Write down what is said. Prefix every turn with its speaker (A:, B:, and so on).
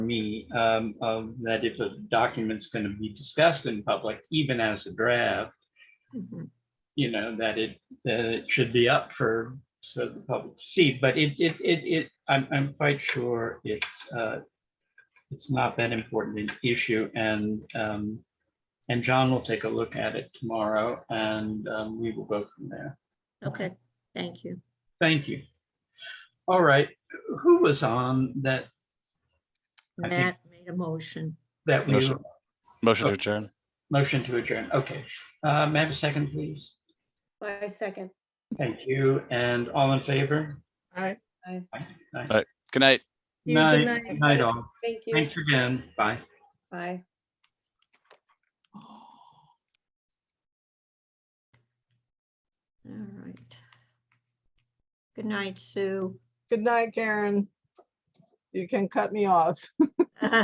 A: me um, of that if a document's going to be discussed in public, even as a draft,
B: Mhm.
A: you know, that it, that it should be up for, so the public to see, but it, it, it, it, I'm, I'm quite sure it's, uh, it's not that important an issue and, um, and John will take a look at it tomorrow and, um, we will go from there.
B: Okay, thank you.
A: Thank you. All right, who was on that, I think-
B: Matt made a motion.
A: that we,
C: Motion. Motion
A: Oh.
C: to adjourn.
A: motion to adjourn? Okay, uh, may I have a second, please?
D: I second.
A: Thank you, and all in favor?
B: All right.
C: Good night.
B: See you, good
A: Night,
B: night.
A: night all.
D: Thank you.
A: Thanks again, bye.
D: Bye.
B: All right. Good night, Sue.
E: Good night, Karen. You can cut me off.